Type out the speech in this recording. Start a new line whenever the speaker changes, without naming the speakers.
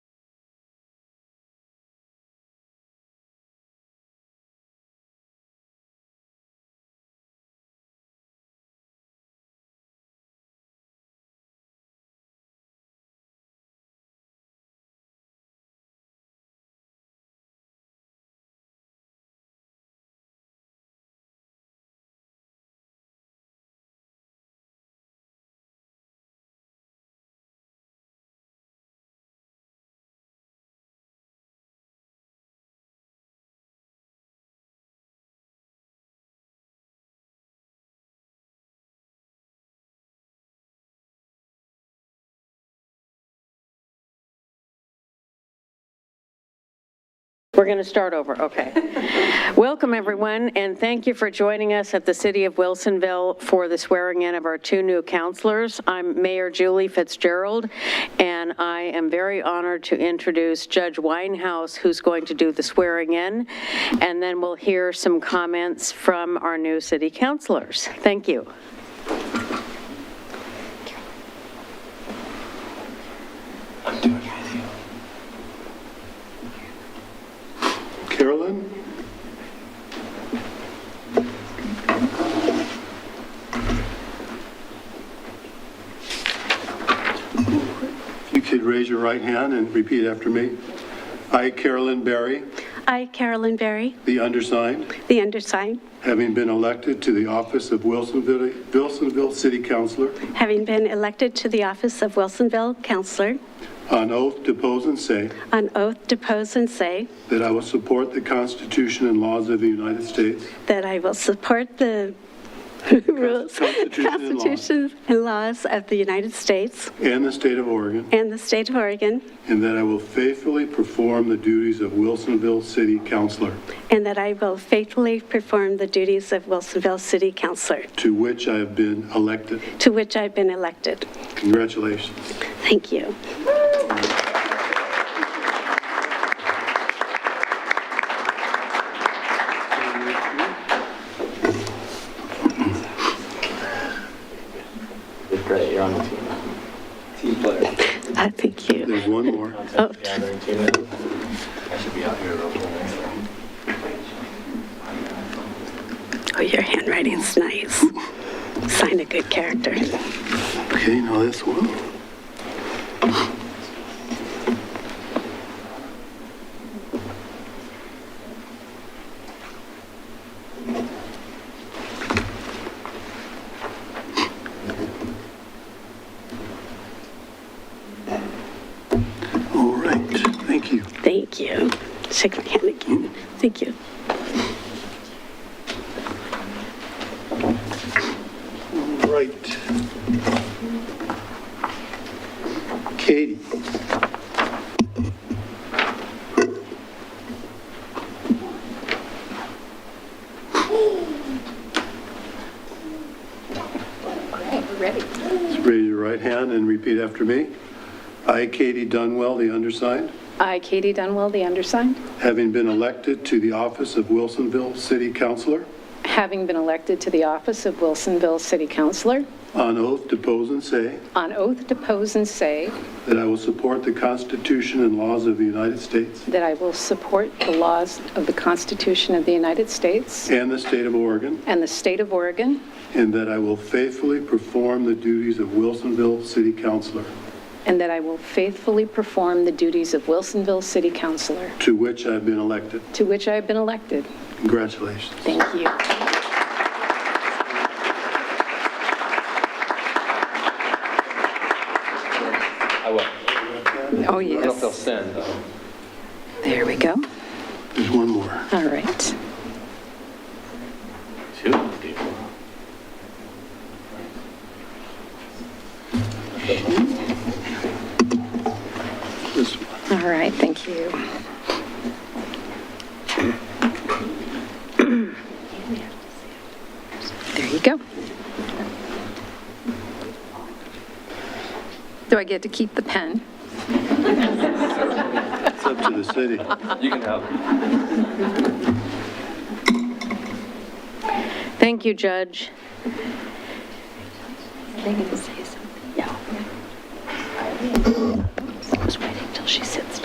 We're going to start over, okay. Welcome, everyone, and thank you for joining us at the City of Wilsonville for the swearing-in of our two new counselors. I'm Mayor Julie Fitzgerald, and I am very honored to introduce Judge Winehouse, who's going to do the swearing-in, and then we'll hear some comments from our new city councilors. Thank you.
Carolyn? If you could raise your right hand and repeat after me. I, Carolyn Berry,
I, Carolyn Berry,
the undersigned,
the undersigned,
having been elected to the office of Wilsonville, Wilsonville City Councilor,
having been elected to the office of Wilsonville Counselor,
on oath depose and say
on oath depose and say
that I will support the Constitution and laws of the United States,
that I will support the rules,
Constitution and laws.
constitutions, and laws of the United States
and the state of Oregon,
and the state of Oregon,
And that I will faithfully perform the duties of Wilsonville City Councilor,
and that I will faithfully perform the duties of Wilsonville City Councilor,
to which I have been elected.
to which I've been elected.
Congratulations.
Thank you.
Did great, you're on the team. Team player.
Uh, Thank you.
There's one more.
Oh.
Gathering team. I should be out here though for the next one.
Oh, your handwriting's nice. Sign of good character.
Okay, now this one. All right, thank you.
Thank you. Shake my hand again. Thank you.
All right. Katie. Just Raise your right hand and repeat after me. I, Katie Dunwell, the undersigned,
I, Katie Dunwell, the undersigned,
having been elected to the office of Wilsonville City Councilor,
having been elected to the office of Wilsonville City Councilor,
on oath depose and say
on oath depose and say
that I will support the Constitution and laws of the United States
that I will support the laws of the Constitution of the United States
and the state of Oregon,
and the state of Oregon,
and that I will faithfully perform the duties of Wilsonville City Councilor,
and that I will faithfully perform the duties of Wilsonville City Councilor,
to which I have been elected.
to which I have been elected.
Congratulations.
Thank you.
I will.
Oh,
I don't know if they'll
yes.
send though.
There we go.
There's one more.
All right.
Two people.
This one.
All right, thank you. There you go. Do I get to keep the pen?
It's up to the city.
You can help.
Thank you, Judge.